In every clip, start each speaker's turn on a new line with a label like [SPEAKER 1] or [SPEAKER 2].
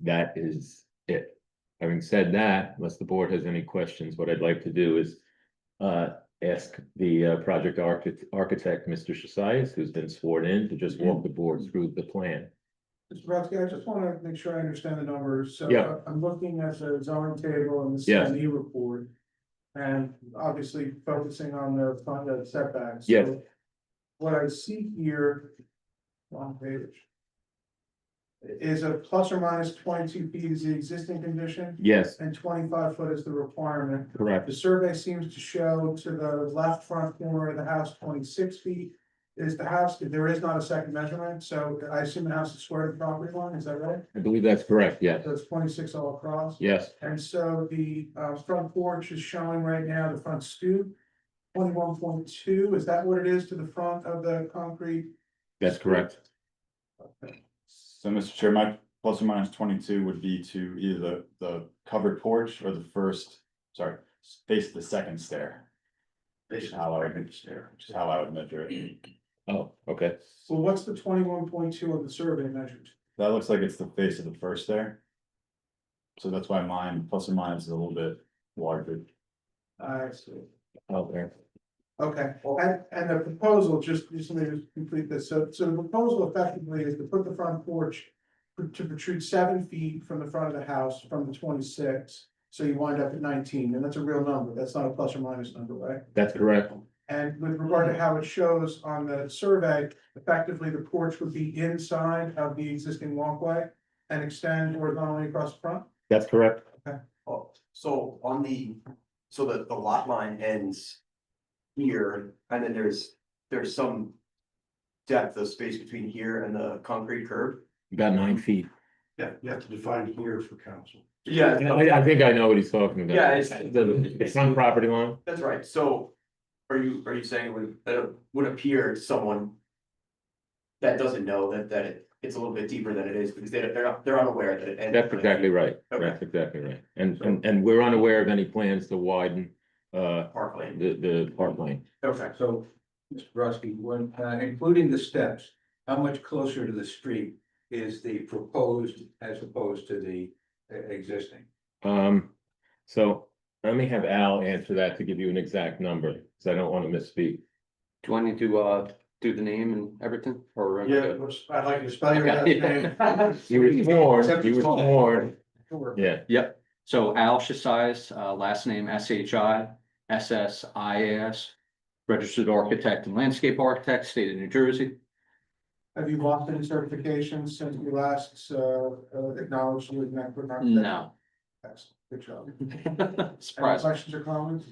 [SPEAKER 1] that is it. Having said that, unless the board has any questions, what I'd like to do is uh, ask the uh, project architect, architect, Mr. Shasias, who's been sworn in, to just walk the board through the plan.
[SPEAKER 2] Mr. Brodsky, I just wanna make sure I understand the numbers, so uh,
[SPEAKER 1] Yeah.
[SPEAKER 2] I'm looking at the zoning table and the
[SPEAKER 1] Yes.
[SPEAKER 2] CME report. And obviously focusing on the front yard setbacks.
[SPEAKER 1] Yes.
[SPEAKER 2] So What I see here. On page. Is a plus or minus twenty-two feet is the existing condition
[SPEAKER 1] Yes,
[SPEAKER 2] and twenty-five foot is the requirement.
[SPEAKER 1] correct.
[SPEAKER 2] The survey seems to show to the left front corner of the house twenty-six feet. Is the house, there is not a second measurement, so I assume the house is square to the property line, is that right?
[SPEAKER 1] I believe that's correct, yes,
[SPEAKER 2] So it's twenty-six all across.
[SPEAKER 1] yes,
[SPEAKER 2] And so the uh front porch is showing right now the front stoop. Twenty-one point two, is that what it is to the front of the concrete?
[SPEAKER 1] that's correct.
[SPEAKER 3] So, Mr. Chair, my plus or minus twenty-two would be to either the, the covered porch or the first, sorry, face the second stair. Which is how I would, which is how I would measure it.
[SPEAKER 1] Oh, okay,
[SPEAKER 2] Well, what's the twenty-one point two of the survey measured?
[SPEAKER 3] That looks like it's the face of the first stair. So that's why mine, plus or minus is a little bit larger.
[SPEAKER 2] I see.
[SPEAKER 1] okay.
[SPEAKER 2] Okay, and, and the proposal, just, just let me just complete this, so, so the proposal effectively is to put the front porch. pr- To protrude seven feet from the front of the house from the twenty-six, so you wind up at nineteen, and that's a real number, that's not a plus or minus number, right?
[SPEAKER 1] That's correct,
[SPEAKER 2] And with regard to how it shows on the survey, effectively the porch would be inside of the existing walkway. And extend horizontally across the front,
[SPEAKER 1] that's correct.
[SPEAKER 4] Oh, so on the, so the, the lot line ends here, and then there's, there's some depth of space between here and the concrete curb?
[SPEAKER 1] About nine feet.
[SPEAKER 4] Yeah, you have to define here for council.
[SPEAKER 1] And
[SPEAKER 4] Yeah,
[SPEAKER 1] I, I think I know what he's talking about.
[SPEAKER 4] Yeah, it's-
[SPEAKER 1] The the front property line,
[SPEAKER 4] that's right, so are you, are you saying would, that it would appear to someone that doesn't know that, that it, it's a little bit deeper than it is, because they, they're, not- they're unaware that it ends.
[SPEAKER 1] that's exactly right,
[SPEAKER 4] Okay.
[SPEAKER 1] that's exactly right. And, and, and we're unaware of any plans to widen, uh,
[SPEAKER 4] Park lane,
[SPEAKER 1] the, the park lane.
[SPEAKER 4] okay,
[SPEAKER 5] So, Mr. Brusky, when, uh, including the steps, how much closer to the street is the proposed as opposed to the uh, existing?
[SPEAKER 1] Um, so let me have Al answer that to give you an exact number, because I don't want to misspeak.
[SPEAKER 6] Do you want me to uh do the name and everything or?
[SPEAKER 2] I'd like to spell
[SPEAKER 6] your last name.
[SPEAKER 1] You were sworn,
[SPEAKER 5] Except
[SPEAKER 1] you were
[SPEAKER 5] it's small.
[SPEAKER 1] sworn, yeah,
[SPEAKER 6] Yep, so Al Shisias, uh last name S H I S S I A S. Registered architect and landscape architect, state of New Jersey.
[SPEAKER 2] Have you lost any certifications since we last, uh, uh, acknowledged you with Network Architect?
[SPEAKER 6] No.
[SPEAKER 2] Excellent, good job. Any
[SPEAKER 6] Surprise,
[SPEAKER 2] questions or comments?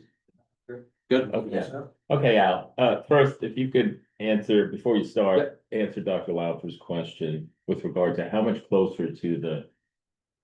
[SPEAKER 6] good.
[SPEAKER 1] okay. Okay, Al, uh, first, if you could answer, before you start, answer Dr. Lauter's question with regard to how much closer to the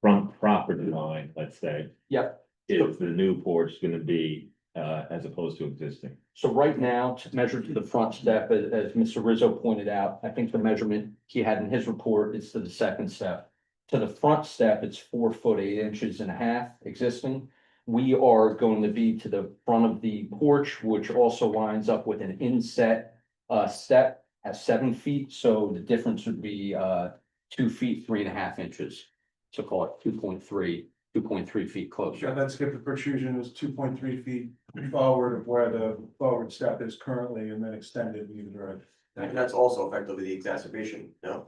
[SPEAKER 1] front property line, let's say.
[SPEAKER 6] Yep.
[SPEAKER 1] Is the new porch gonna be, uh, as opposed to existing?
[SPEAKER 6] So right now, to measure to the front step, as, as Mr. Rizzo pointed out, I think the measurement he had in his report is to the second step. To the front step, it's four foot eight inches and a half existing. We are going to be to the front of the porch, which also lines up with an inset uh, step at seven feet, so the difference would be uh, two feet, three and a half inches. So call it two point three, two point three feet
[SPEAKER 2] Sure,
[SPEAKER 6] closer.
[SPEAKER 2] that's if the protrusion is two point three feet forward of where the forward step is currently and then extended in either direction.
[SPEAKER 4] and that's also effectively the exacerbation, no?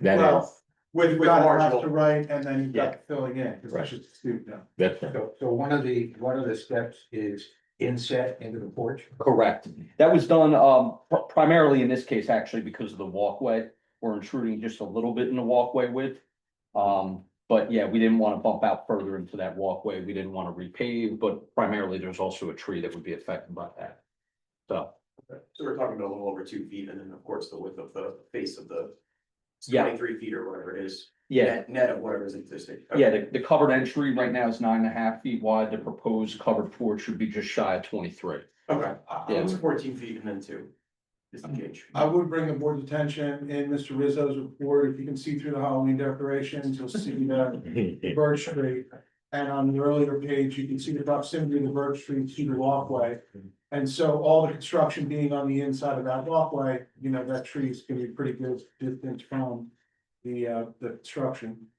[SPEAKER 1] That
[SPEAKER 2] Well,
[SPEAKER 1] is,
[SPEAKER 4] With,
[SPEAKER 2] You've
[SPEAKER 4] with
[SPEAKER 2] got left
[SPEAKER 4] marginal.
[SPEAKER 2] to right, and then you've got filling in, because that's just stupid now.
[SPEAKER 1] that's right.
[SPEAKER 5] So, so one of the, one of the steps is inset into the porch?
[SPEAKER 6] Correct. That was done um pr- primarily in this case, actually, because of the walkway. We're intruding just a little bit in the walkway width. Um, but yeah, we didn't want to bump out further into that walkway. We didn't want to repave, but primarily there's also a tree that would be affected by that. So,
[SPEAKER 4] So we're talking about a little over two feet and then, of course, the width of the face of the.
[SPEAKER 6] Yeah.
[SPEAKER 4] Twenty-three feet or whatever it is.
[SPEAKER 6] yeah,
[SPEAKER 4] net- Net of whatever is existing. Okay.
[SPEAKER 6] yeah, the, the covered entry right now is nine and a half feet wide. The proposed covered porch should be just shy of twenty-three.
[SPEAKER 4] Okay, I- I
[SPEAKER 6] Yeah.
[SPEAKER 4] was fourteen feet and then two. Is the change.
[SPEAKER 2] I would bring the board's attention in Mr. Rizzo's report, if you can see through the Halloween decorations, you'll see the birch tree. And on the earlier page, you can see the proximity of the birch tree to the walkway. And so all the construction being on the inside of that walkway, you know, that tree is gonna be pretty good distance from the uh, the construction.